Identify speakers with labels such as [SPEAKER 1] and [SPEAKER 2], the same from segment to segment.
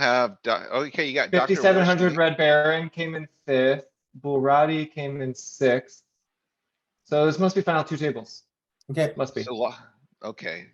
[SPEAKER 1] have, doc- okay, you got. Dr.
[SPEAKER 2] Fifty-seven hundred
[SPEAKER 1] Wozniak.
[SPEAKER 2] Red Baron came in fifth, Bulrati came in sixth. So this must be final two tables,
[SPEAKER 3] Okay,
[SPEAKER 2] must be.
[SPEAKER 1] So wha- Okay,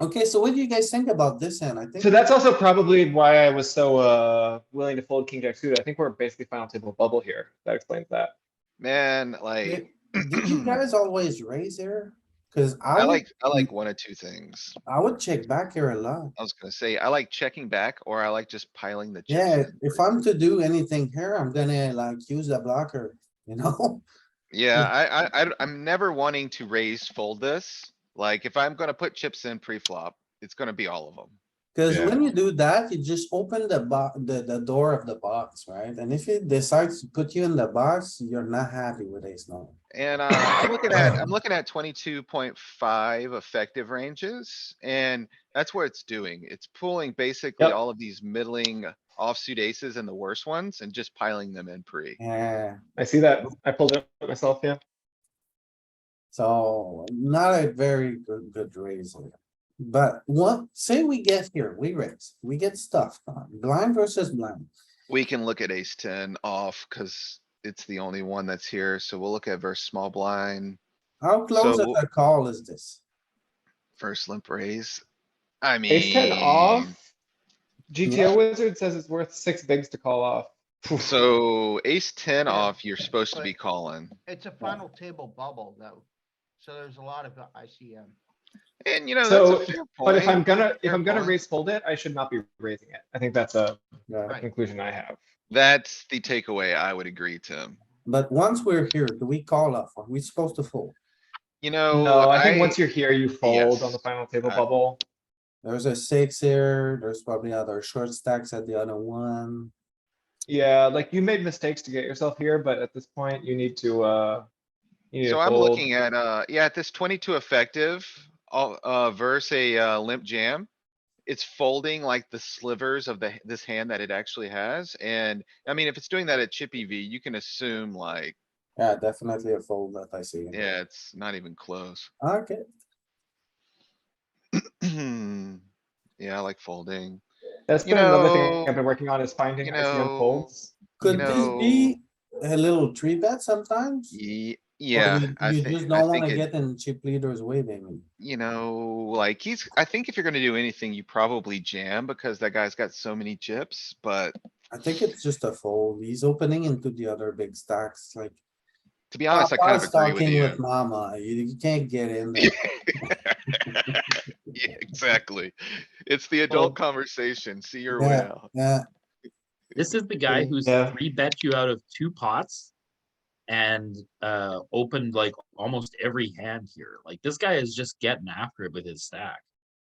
[SPEAKER 3] okay, so what do you guys think about this hand? I think.
[SPEAKER 2] So that's also probably why I was so, uh, willing to fold King Jack suited. I think we're basically final table bubble here. That explains that.
[SPEAKER 1] man,
[SPEAKER 3] Did
[SPEAKER 1] like,
[SPEAKER 3] did you guys always raise here? Cause
[SPEAKER 1] I
[SPEAKER 3] I, would-
[SPEAKER 1] like, I like one of two things.
[SPEAKER 3] I would check back here a lot.
[SPEAKER 1] I was gonna say, I like checking back or I like just piling the. chips
[SPEAKER 3] Yeah,
[SPEAKER 1] in.
[SPEAKER 3] if I'm to do anything here, I'm gonna like use the blocker, you know?
[SPEAKER 1] Yeah, I, I, I, d- I'm never wanting to raise fold this. Like, if I'm gonna put chips in pre-flop, it's gonna be all of them.
[SPEAKER 3] Cause
[SPEAKER 4] Yeah.
[SPEAKER 3] when you do that, you just open the box, the, the door of the box, right? And if it decides to put you in the box, you're not happy with ace nine.
[SPEAKER 1] And uh, I'm looking at, I'm looking at twenty-two point five effective ranges, and that's what it's doing. It's pulling basically
[SPEAKER 2] Yep.
[SPEAKER 1] all of these middling offsuit aces and the worst ones and just piling them in pre.
[SPEAKER 3] Yeah,
[SPEAKER 2] I see that. I pulled it up myself, yeah.
[SPEAKER 3] so not a very good, good raise here. But what, say we get here, we raise, we get stuffed, uh, blind versus blind.
[SPEAKER 1] We can look at ace ten off because it's the only one that's here, so we'll look at verse small blind,
[SPEAKER 3] How close
[SPEAKER 1] So
[SPEAKER 3] of
[SPEAKER 1] wh-
[SPEAKER 3] a call is this?
[SPEAKER 1] first limp raise. I mean.
[SPEAKER 2] Ace ten off. GTO wizard says it's worth six bigs to call off. Poof.
[SPEAKER 1] So ace ten
[SPEAKER 5] Yeah.
[SPEAKER 1] off, you're supposed to be
[SPEAKER 5] But-
[SPEAKER 1] calling.
[SPEAKER 5] It's a final table bubble though, so there's a lot of uh, ICM.
[SPEAKER 1] And you know,
[SPEAKER 2] So,
[SPEAKER 1] that's a fair
[SPEAKER 2] But if I'm
[SPEAKER 1] point.
[SPEAKER 2] gonna, if
[SPEAKER 1] Fair
[SPEAKER 2] I'm gonna
[SPEAKER 1] point.
[SPEAKER 2] raise fold it, I should not be raising it. I think that's a
[SPEAKER 3] Yeah.
[SPEAKER 2] a
[SPEAKER 5] Right.
[SPEAKER 2] conclusion I have.
[SPEAKER 1] That's the takeaway I would agree, Tim.
[SPEAKER 3] But once we're here, do we call off? Are we supposed to fold?
[SPEAKER 1] You know,
[SPEAKER 2] No, I think
[SPEAKER 1] I,
[SPEAKER 2] once you're here, you fold on the
[SPEAKER 1] Yes.
[SPEAKER 2] final table
[SPEAKER 1] I-
[SPEAKER 2] bubble.
[SPEAKER 3] There's a six here, there's probably other short stacks at the other one.
[SPEAKER 2] Yeah, like you made mistakes to get yourself here, but at this point you need to, uh. you need to
[SPEAKER 1] so I'm
[SPEAKER 2] fold.
[SPEAKER 1] looking at, uh, yeah, at this twenty-two effective, uh, uh, versus a, uh, limp jam. It's folding like the slivers of the, this hand that it actually has. And I mean, if it's doing that at chippy V, you can assume like,
[SPEAKER 3] Yeah, definitely a fold that I see.
[SPEAKER 1] yeah, it's not even close.
[SPEAKER 3] Okay,
[SPEAKER 1] Yeah, I like folding.
[SPEAKER 2] That's
[SPEAKER 1] you
[SPEAKER 2] been another thing
[SPEAKER 1] know-
[SPEAKER 2] I've been working on is finding
[SPEAKER 1] you
[SPEAKER 2] ICM
[SPEAKER 1] know,
[SPEAKER 2] folds.
[SPEAKER 3] could this be a little three bet sometimes? Or
[SPEAKER 1] Ye- Yeah,
[SPEAKER 3] you-
[SPEAKER 1] I
[SPEAKER 3] You
[SPEAKER 1] think,
[SPEAKER 3] just
[SPEAKER 1] I
[SPEAKER 3] don't
[SPEAKER 1] think
[SPEAKER 3] wanna
[SPEAKER 1] it-
[SPEAKER 3] get in chip leaders way, baby.
[SPEAKER 1] you know, like he's, I think if you're gonna do anything, you probably jam because that guy's got so many chips, but
[SPEAKER 3] I think it's just a fold. He's opening into the other big stacks like.
[SPEAKER 1] to be honest, Oh, I kind of
[SPEAKER 3] Papa's
[SPEAKER 1] agree with
[SPEAKER 3] talking
[SPEAKER 1] you.
[SPEAKER 3] Mama, you you can't get in there.
[SPEAKER 1] Yeah, exactly. It's the
[SPEAKER 2] Well-
[SPEAKER 1] adult conversation. See your way
[SPEAKER 3] Yeah.
[SPEAKER 1] out.
[SPEAKER 3] Yeah,
[SPEAKER 6] This is the guy who's
[SPEAKER 2] Yeah.
[SPEAKER 6] three bet you out of two pots and uh opened like almost every hand here. Like this guy is just getting after it with his stack.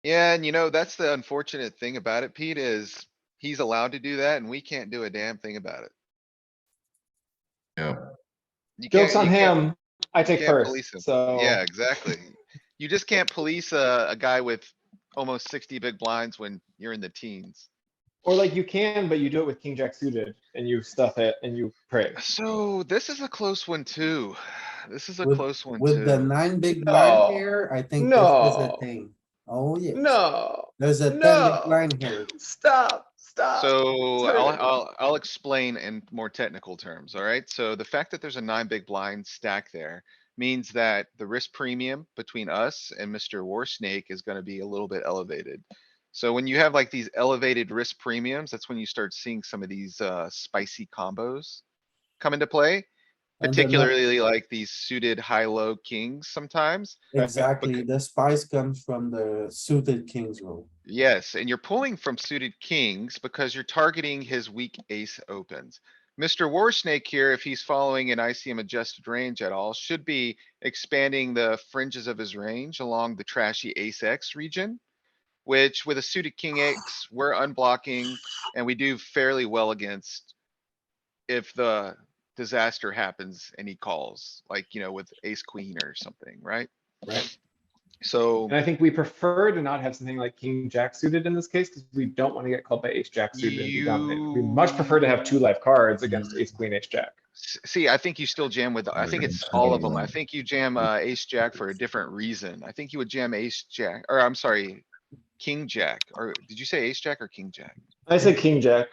[SPEAKER 1] Yeah, and you know, that's the unfortunate thing about it, Pete, is he's allowed to do that and we can't do a damn thing about it.
[SPEAKER 4] Yeah.
[SPEAKER 1] You
[SPEAKER 2] Jokes
[SPEAKER 1] can't-
[SPEAKER 2] on
[SPEAKER 1] you can't-
[SPEAKER 2] him, I take
[SPEAKER 1] can't police him.
[SPEAKER 2] first, so.
[SPEAKER 1] Yeah, exactly. You just can't police a, a guy with almost sixty big blinds when you're in the teens.
[SPEAKER 2] Or like you can, but you do it with king jack suited and you stuff it and you praise.
[SPEAKER 1] So this is a close one too. This is a
[SPEAKER 3] With-
[SPEAKER 1] close one
[SPEAKER 3] with the
[SPEAKER 1] too.
[SPEAKER 3] nine big
[SPEAKER 2] No.
[SPEAKER 3] blind here, I think this is a
[SPEAKER 2] No.
[SPEAKER 3] thing. Oh, yeah.
[SPEAKER 2] No,
[SPEAKER 3] There's a ten
[SPEAKER 2] No.
[SPEAKER 3] big blind here.
[SPEAKER 2] stop, stop.
[SPEAKER 1] So
[SPEAKER 2] sorry.
[SPEAKER 1] I'll, I'll, I'll explain in more technical terms, alright? So the fact that there's a nine big blind stack there means that the risk premium between us and Mr. War Snake is gonna be a little bit elevated. So when you have like these elevated risk premiums, that's when you start seeing some of these, uh, spicy combos come into play.
[SPEAKER 3] And they're not-
[SPEAKER 1] Particularly like these suited high-low kings sometimes.
[SPEAKER 3] Exactly, the spice comes from the suited kings rule.
[SPEAKER 1] Yes, and you're pulling from suited kings because you're targeting his weak ace opens. Mr. War Snake here, if he's following an ICM adjusted range at all, should be expanding the fringes of his range along the trashy ace X region. Which with a suited king X, we're unblocking and we do fairly well against. If the disaster happens and he calls, like, you know, with ace queen or something, right?
[SPEAKER 3] Right.
[SPEAKER 1] So.
[SPEAKER 2] And I think we prefer to not have something like king jack suited in this case, because we don't want to get called by ace jack suited and be dominated. We much prefer to have two live cards against ace queen, ace jack.
[SPEAKER 1] S- See, I think you still jam with, I think it's all of them. I think you jam, uh, ace jack for a different reason. I think you would jam ace jack, or I'm sorry. king jack, or did you say ace jack or king jack?
[SPEAKER 2] I say king jack.